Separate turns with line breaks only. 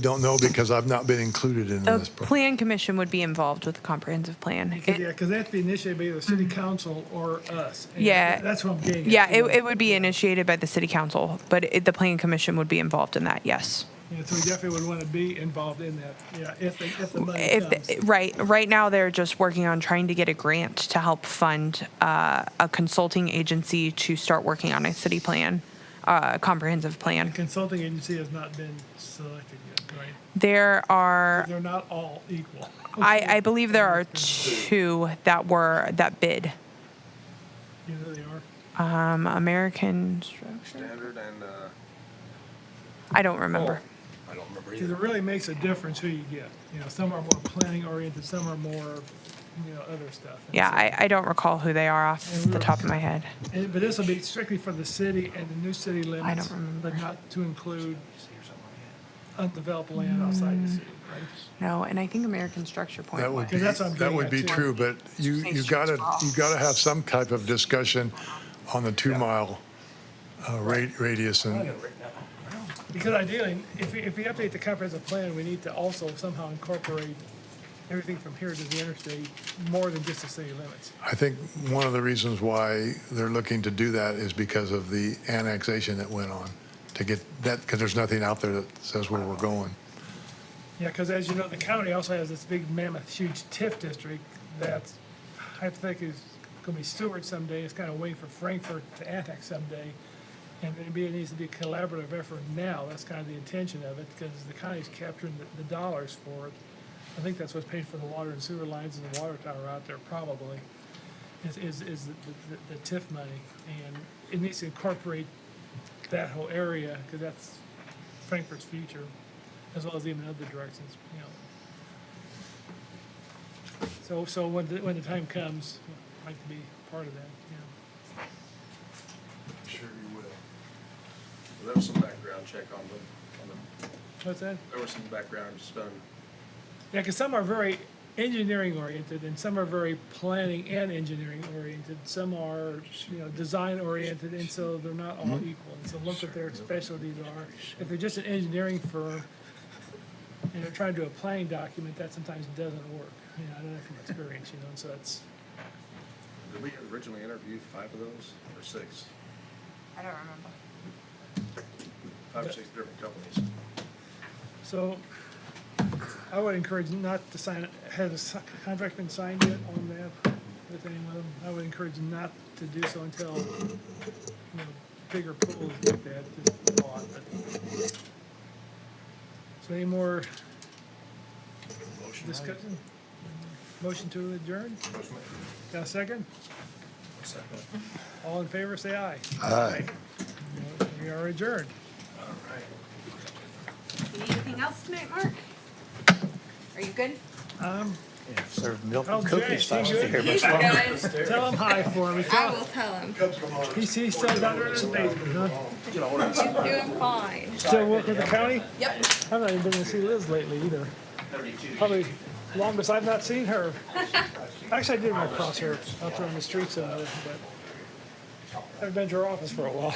Don't know because I've not been included in
The
this. pro-
plan commission would be involved with the comprehensive plan. It- Mm-hmm.
Yeah, because that'd be initiated by either city council or us. And
Yeah.
That's what I'm getting at.
Yeah, it, it would be initiated by the city council, but it, the plan commission would be involved in that, yes.
Yeah, so we definitely would want to be involved in that, yeah, if, the- if the money comes.
If, right, right now they're just working on trying to get a grant to help fund uh, a consulting agency to start working on a city plan, uh, comprehensive plan.
Consulting agency has not been selected yet, right?
There are,
They're not all equal.
I, I believe there are two that were, that bid.
You know, they are.
Um, American,
Standard and, uh,
I don't remember.
I don't remember
Because
either.
it really makes a difference who you get. You know, some are more planning oriented, some are more, you know, other stuff. And
Yeah,
so-
I, I don't recall who they are off the top of my head.
and- But this will be strictly for the city and the new city limits.
remember.
But not to include undeveloped land outside the city, right?
No, and I think American Structure Point.
That would be,
Because that's what I'm
that
getting
would
at,
be
too.
true, but you, you gotta, you gotta have some type of discussion on the two mile uh, ra- radius and
Because ideally, if we, if we update the comprehensive plan, we need to also somehow incorporate everything from here to the interstate, more than just the city limits.
I think one of the reasons why they're looking to do that is because of the annexation that went on to get that, because there's nothing out there that says where we're going.
Yeah, because as you know, the county also has this big mammoth, huge TIF district that's hypothetically is gonna be Stewart someday, it's kind of waiting for Frankfurt to annex someday. And maybe it needs to be a collaborative effort now, that's kind of the intention of it, because the county's capturing the, the dollars for it. I think that's what's paid for the water and sewer lines and the water tower out there probably, is, is, is the, the- the TIF money. And it needs to incorporate that whole area, because that's Frankfurt's future as well as even other directions, you know. So, so when, the- when the time comes, I'd like to be part of that, you know.
Sure you will. There was some background check on the, on the,
What's that?
there was some background just done.
Yeah, because some are very engineering oriented and some are very planning and engineering oriented. Some are, you know, design oriented and so they're not all equal. And so look what their specialties are. If they're just an engineering firm and they're trying to do a planning document, that sometimes doesn't work. You know, I know that from experience, you know, and so that's,
Did we originally interview five of those or six?
I don't remember.
Five or six different companies.
So I would encourage not to sign, has a s- contract been signed yet on that with anyone? I would encourage not to do so until, you know, bigger pools like that is bought, but. So any more
Motion.
discussion? Motion to adjourn?
Motion made.
Got a second?
Second.
All in favor, say aye.
Aye.
We are adjourned.
All right.
Anything else tonight, Mark? Are you good?
Um,
serve milk
how's
and
Jay?
cookies. I
He
was to hear
good?
much longer.
Good.
Tell him hi for me.
I will tell him.
He's, he's still down there in the basement, huh?
She's doing fine.
Still work with the county?
Yep.
I've not even been to see Liz lately either. Probably longest I've not seen her. Actually, I did run across her out there on the streets of her, but I've been to her office for a while.